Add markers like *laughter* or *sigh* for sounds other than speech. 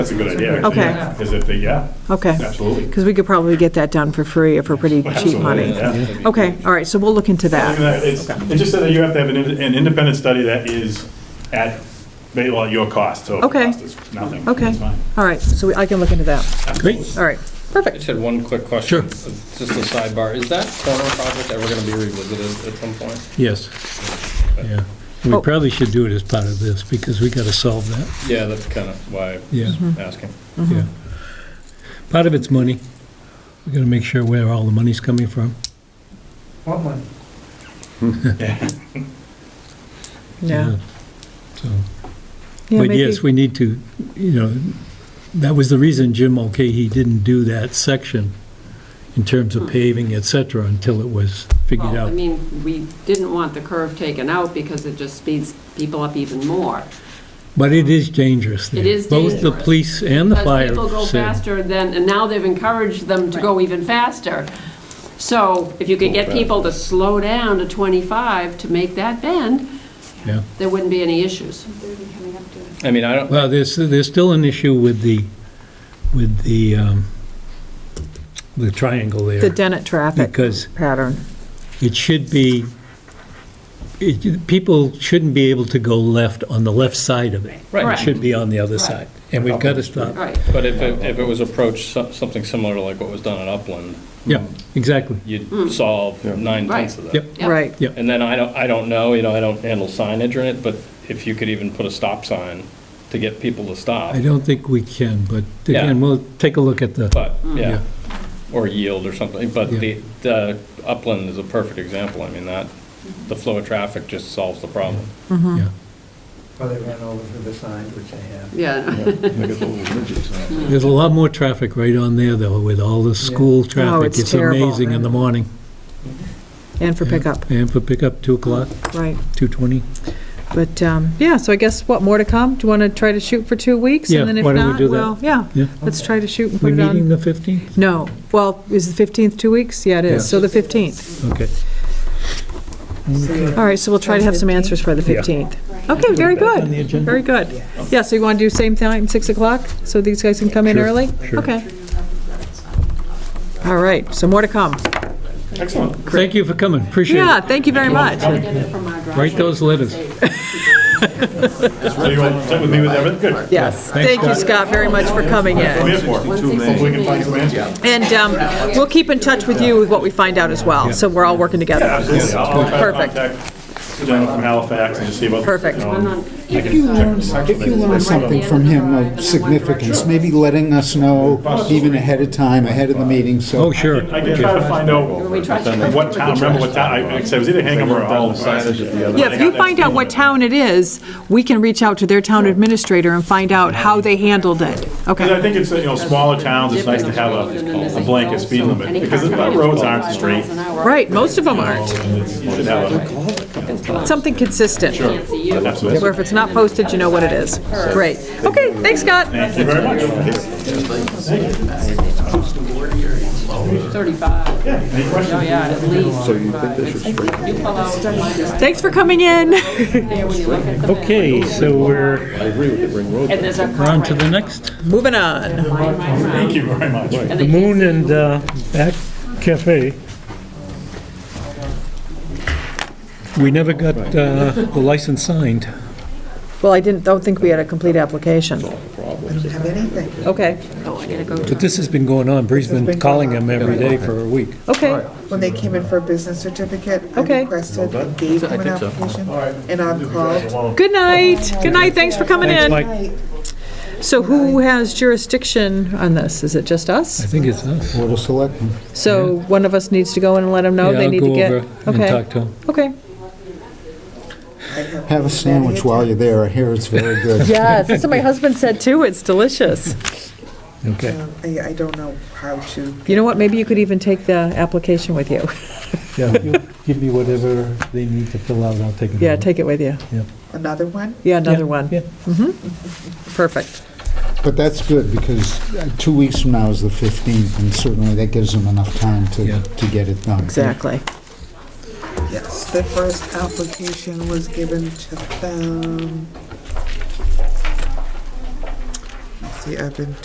That's a good idea. actually. Okay. Yeah. Is it the, yeah, Okay. absolutely. Because we could probably get that done for free or for pretty cheap Absolutely, money. yeah. Okay, all right, so we'll look into Look at that. that. It's- It just said that you have to have an in- an independent study that is at, well, at your cost, so if the Okay. cost is nothing. Okay, it's fine. all right, so we- I can look into that. Absolutely. All right, I just had one quick question. Just a sidebar. Is that corner project ever gonna be revisited at some point? Yes. Yeah. We Oh. probably should do it as part of this, because we gotta solve that, Yeah, that's kind of why I yeah, Mm-hmm, was asking. yeah. Part of it's money. We gotta make sure where all the money's coming from. Yeah. yeah. So, Yeah, but maybe- yes, we need to, you know, that was the reason Jim Mulcahy didn't do that section in terms of paving, et cetera, until it was figured Well, I out. mean, we didn't want the curve taken out because it just speeds people up even more. But it is dangerous there. um, It is Both the dangerous. police and the Because fire people go said- faster than, and now they've encouraged them to go even faster. So if you could get people to slow down to 25 to make that bend, Yeah. there wouldn't be any issues. I mean, I don't, Well, there's, there's still an issue with the, with the, um, the triangle The there, Dennett traffic because pattern. it should be, it, people shouldn't be able to go left on the left side of it. It right. Correct. should be on the other Right. side, and we've got to stop. Right. But if it, if it was approached so- something similar to like what was done at Upland, Yeah, exactly. you'd solve nine tenths of that. Yep, Yep. Right, And then I don't, I don't know, you know, I don't handle signage or it, but if you could even put a stop sign to get people to stop, I don't think we can, but Yeah. again, we'll take a look at the, but, yeah, Yeah. or yield or something, but Yeah. the, the Upland is a perfect example. I mean, that, the flow of traffic just solves the problem. Mm-hmm. yeah. Well, they ran over for the sign, which they have. Yeah. *laughs* There's a lot more traffic right on there, though, with all the school traffic. Oh, it's terrible. amazing in the morning. and for pickup, And for pickup, 2 o'clock, right. 2:20. But, um, yeah, so I guess, what, more to come? Do you want to try to shoot for two weeks? Yeah, and then if why don't we not, do that? well, Yeah, Yeah. let's try to shoot and We put it meeting on. the 15th? No, well, is the 15th two weeks? Yeah, it is, Yeah. so the 15th. Okay. All right, so we'll try to have some answers by the Yeah. 15th. Okay, very good. On the agenda? Very good. Yeah, so you want to do same time, 6 o'clock, so these guys can come in Sure, early? sure. Okay. All right, so more to come. Excellent. Thank you for coming, appreciate Yeah, it. thank you very much. Write those letters. So you all set with me with everything? Good. Yes, Thanks, thank you, Scott. Scott, very much for coming We're here in. for it. Hopefully we can find some answers. And um, we'll keep in touch with you with what we find out as well, so we're all working together. Absolutely. I'll I'll try to Perfect. contact the gentleman from Halifax and just see about. um, Perfect. If you If you learn something from him of significance, maybe letting us know even ahead of time, ahead of the meeting, so. Oh, sure. I can try to find out what town, remember what town, I like I said, it was either Hingham or Halifax. Yeah, if you find out what town it is, we can reach out to their town administrator and find out how they handled it. Because I Okay, think it's, you know, smaller towns, it's nice to have a a blanket speed limit, because the roads aren't straight. right, most of them aren't. You should have a, Something consistent, absolutely. where if it's not posted, you know what it is. Great. Okay, thanks, Scott. Thank you very much. 35. Yeah. Oh, yeah, at least. So you think this is You pull out, Thanks for coming in. *laughs* Okay, so we're and there's a car on right to the next. Moving on. Thank you very much. The Moon and uh, Back Cafe. We never got uh, the license signed. Well, I didn't, don't think we had a complete application. Have anything? Okay, But this has been going on. Bree's been calling him every day for a week. okay, When they came in for a business certificate, I Okay. requested, and gave them an application, and I'm called. good night, good night, thanks for coming Thanks, in. Mike. Right. So who has jurisdiction on this? Is it just I us? think it's us. Board of Selectmen. So one of us needs to go in and let them know Yeah, Oh, they I'll need to get? Go over and talk to him. Okay, okay. Have a sandwich while you're there, I hear it's very good. Yes, that's what *laughs* my husband said too, it's delicious. Okay, uh, I, I don't know how to. You know what, maybe you could even take the application with you. yeah, you give me whatever they need to fill out, I'll take it. Yeah, over. take it with you. Another one? Yeah, Yeah, another one. yeah. Perfect. But that's good, because uh, two weeks from now is the 15th, and certainly that gives them enough time Yeah. to, to get it done. Exactly. Yes, the first application was given to them. See, I've been